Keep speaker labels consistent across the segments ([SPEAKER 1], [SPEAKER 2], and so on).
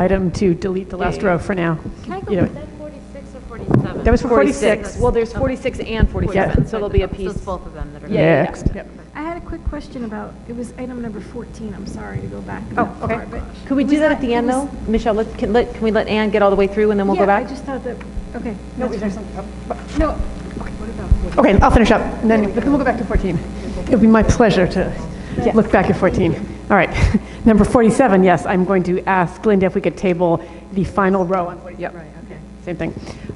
[SPEAKER 1] item to delete the last row for now.
[SPEAKER 2] Can I go,
[SPEAKER 1] Yeah.
[SPEAKER 2] is that 46 or 47?
[SPEAKER 1] That was 46.
[SPEAKER 3] 46, well, there's 46 and 47, so there'll be a
[SPEAKER 2] So
[SPEAKER 3] piece.
[SPEAKER 2] it's both of them that are.
[SPEAKER 3] Yeah, yeah, yeah.
[SPEAKER 1] Next. Yep.
[SPEAKER 4] I had a quick question about, it was item number 14, I'm sorry to go back.
[SPEAKER 3] Oh,
[SPEAKER 4] that far,
[SPEAKER 3] okay.
[SPEAKER 4] but
[SPEAKER 3] Could we
[SPEAKER 4] it
[SPEAKER 3] do
[SPEAKER 4] was
[SPEAKER 3] that
[SPEAKER 4] not-
[SPEAKER 3] at the
[SPEAKER 4] it
[SPEAKER 3] end,
[SPEAKER 4] was-
[SPEAKER 3] though? Michelle, let, can, let, can we let Ann get all the way through and then we'll go
[SPEAKER 4] Yeah, I
[SPEAKER 3] back?
[SPEAKER 4] just thought that, okay.
[SPEAKER 1] No,
[SPEAKER 4] that's
[SPEAKER 1] is there something?
[SPEAKER 4] fine. No, okay, what about 14?
[SPEAKER 1] Okay, I'll finish up, and then, but then we'll go back to 14. It'll be my pleasure to look back at 14. All right, number 47, yes, I'm going to ask Linda if we could table the final row on 47. Yep. Same thing.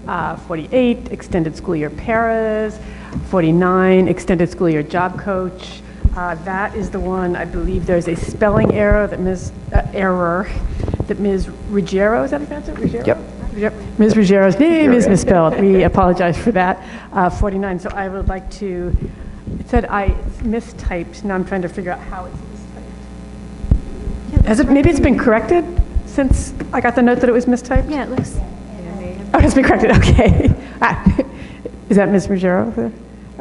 [SPEAKER 1] Uh, 48, extended school year paras. 49, extended school year job coach. Uh, That is the one, I believe there's a spelling error that Ms., uh, error, that Ms. Ruggiero, is that how you pronounce it, Ruggiero?
[SPEAKER 5] Yep.
[SPEAKER 1] Yep. Ms. Ruggiero's name is misspelled. We apologize for that. Uh, 49, so I would like to, it said I mistyped, now I'm trying to figure out how it's mistyped. Has it, maybe it's been corrected since I got the note that it was mistyped?
[SPEAKER 4] Yeah, it looks,
[SPEAKER 1] Oh, it's been corrected, okay. Ah, Is that Ms. Ruggiero over there?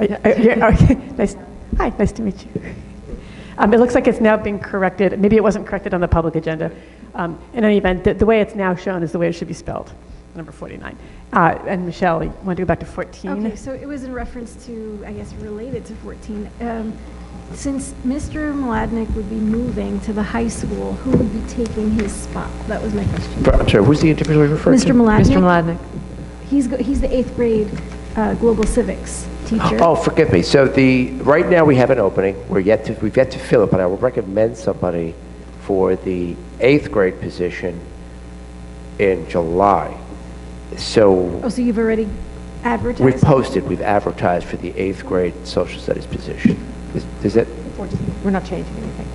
[SPEAKER 1] Are- are- yeah, okay. Nice, hi, nice to meet you. Um, It looks like it's now been corrected, maybe it wasn't corrected on the public agenda. Um, In any event, the- the way it's now shown is the way it should be spelled, number 49. Uh, And Michelle, you want to go back to 14?
[SPEAKER 4] okay, so it was in reference to, I guess, related to 14. Um, Since Mr. Maladnik would be moving to the high school, who would be taking his spot? That was my question.
[SPEAKER 5] But, I'm sorry, who's the individual you referred to?
[SPEAKER 4] Mr. Maladnik?
[SPEAKER 3] Mr. Maladnik?
[SPEAKER 4] He's, go- he's the eighth grade uh, global civics teacher.
[SPEAKER 5] Oh, forgive me. So the, right now, we have an opening. We're yet to, we've yet to fill it, but I would recommend somebody for the eighth grade position in July. So
[SPEAKER 4] Oh, so you've already advertised?
[SPEAKER 5] we've posted, we've advertised for the eighth grade social studies position. Is- Is it,
[SPEAKER 3] We're not changing anything.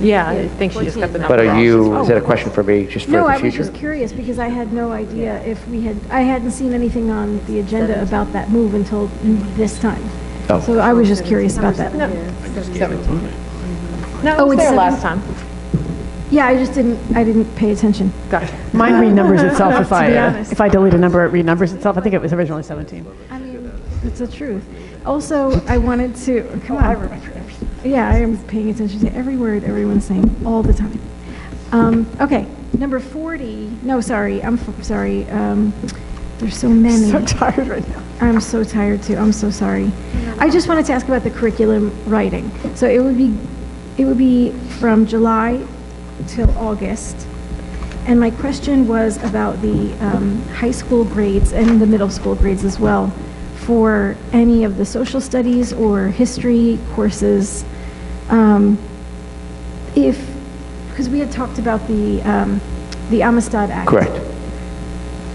[SPEAKER 3] Yeah, I think she just got the number. Oh,
[SPEAKER 5] but are
[SPEAKER 3] wrong.
[SPEAKER 5] you, is that a question for me, just
[SPEAKER 4] Oh.
[SPEAKER 5] for
[SPEAKER 4] No,
[SPEAKER 5] the
[SPEAKER 4] I was
[SPEAKER 5] future?
[SPEAKER 4] just curious because I had no idea if we had, I hadn't seen anything on the agenda about that move until this time.
[SPEAKER 5] Oh.
[SPEAKER 4] So I was just curious about that.
[SPEAKER 3] No,
[SPEAKER 4] Oh,
[SPEAKER 3] it was
[SPEAKER 4] it's
[SPEAKER 3] there
[SPEAKER 4] seven.
[SPEAKER 3] last time.
[SPEAKER 4] Yeah, I just didn't, I didn't pay attention.
[SPEAKER 3] Gotcha.
[SPEAKER 1] Mine renumbers itself if I, uh,
[SPEAKER 4] be honest.
[SPEAKER 1] if I delete a number, it renumbers itself. I think it was originally 17.
[SPEAKER 4] I mean, it's the truth. Also, I wanted to, come on. Oh, I remember everything. Yeah, I am paying attention to every word everyone's saying all the time. Um, okay, number 40, no, sorry, I'm f- sorry. Um, there's so many.
[SPEAKER 1] So tired right now.
[SPEAKER 4] I'm so tired too. I'm so sorry. I just wanted to ask about the curriculum writing. So it would be, it would be from July till August. And my question was about the um, high school grades and the middle school grades as well for any of the social studies or history courses. Um, if, because we had talked about the, um, the Amistad Act.
[SPEAKER 5] Correct.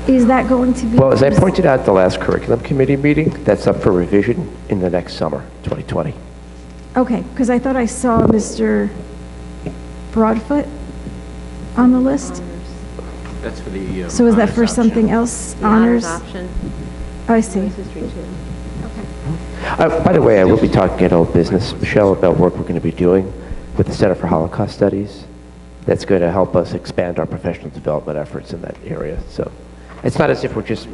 [SPEAKER 4] Is that going to be?
[SPEAKER 5] Well, as I pointed out at the last curriculum committee meeting, that's up for revision in the next summer, 2020.
[SPEAKER 4] Okay, because I thought I saw Mr. Broadfoot on the list.
[SPEAKER 6] That's for the. uh,
[SPEAKER 4] So is that
[SPEAKER 6] honors
[SPEAKER 4] for
[SPEAKER 6] option.
[SPEAKER 4] something else? Honors? I see.
[SPEAKER 5] Uh, By the way, I will be talking at Old Business, Michelle, about work we're going to be doing with the Center for Holocaust Studies. That's going to help us expand our professional development efforts in that area. So it's not as if we're just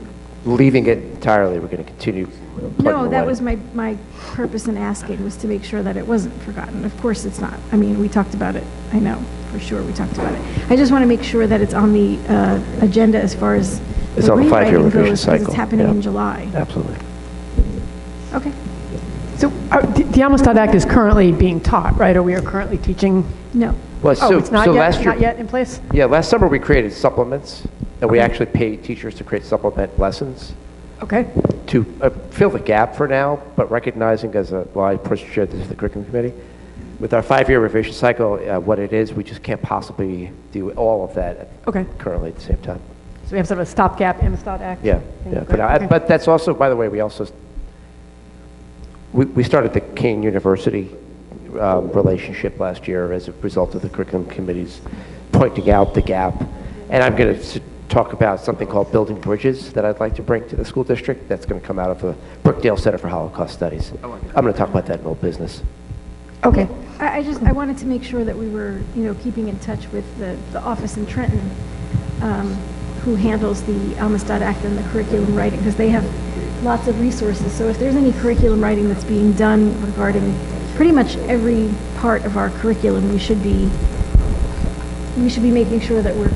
[SPEAKER 5] leaving it entirely, we're going to continue plugging
[SPEAKER 4] No, that
[SPEAKER 5] away.
[SPEAKER 4] was my, my purpose in asking was to make sure that it wasn't forgotten. Of course it's not. I mean, we talked about it. I know, for sure, we talked about it. I just want to make sure that it's on the uh, agenda as far as
[SPEAKER 5] It's
[SPEAKER 4] the
[SPEAKER 5] on the five-year
[SPEAKER 4] rewriting
[SPEAKER 5] revision
[SPEAKER 4] goes, because
[SPEAKER 5] cycle,
[SPEAKER 4] it's happening
[SPEAKER 5] yeah.
[SPEAKER 4] in July.
[SPEAKER 5] Absolutely.
[SPEAKER 4] Okay.
[SPEAKER 1] So uh, the the Amistad Act is currently being taught, right? Or we are currently teaching?
[SPEAKER 4] No.
[SPEAKER 5] Well,
[SPEAKER 1] Oh,
[SPEAKER 5] so,
[SPEAKER 1] it's not
[SPEAKER 5] so
[SPEAKER 1] yet,
[SPEAKER 5] last
[SPEAKER 1] it's
[SPEAKER 5] year.
[SPEAKER 1] not yet in place?
[SPEAKER 5] Yeah, last summer we created supplements, and we actually paid teachers to create supplement lessons.
[SPEAKER 1] Okay.
[SPEAKER 5] to uh, fill the gap for now, but recognizing as a, well, I pushed, shared this with the curriculum committee, with our five-year revision cycle, uh, what it is, we just can't possibly do all of that
[SPEAKER 1] Okay.
[SPEAKER 5] currently at the same time.
[SPEAKER 1] So we have sort of a stopgap Amistad Act?
[SPEAKER 5] Yeah,
[SPEAKER 1] thing,
[SPEAKER 5] yeah.
[SPEAKER 1] right?
[SPEAKER 5] But, I-
[SPEAKER 1] Okay.
[SPEAKER 5] but that's also, by the way, we also, we, we started the Kane University um, relationship last year as a result of the curriculum committees pointing out the gap. And I'm going to talk about something called building bridges that I'd like to bring to the school district. That's going to come out of the Brookdale Center for Holocaust Studies. I'm going to talk about that in old business.
[SPEAKER 1] Okay.
[SPEAKER 4] I, I just, I wanted to make sure that we were, you know, keeping in touch with the, the office in Trenton, um, who handles the Amistad Act and the curriculum writing, because they have lots of resources. So if there's any curriculum writing that's being done regarding pretty much every part of our curriculum, we should be we should be making sure that we're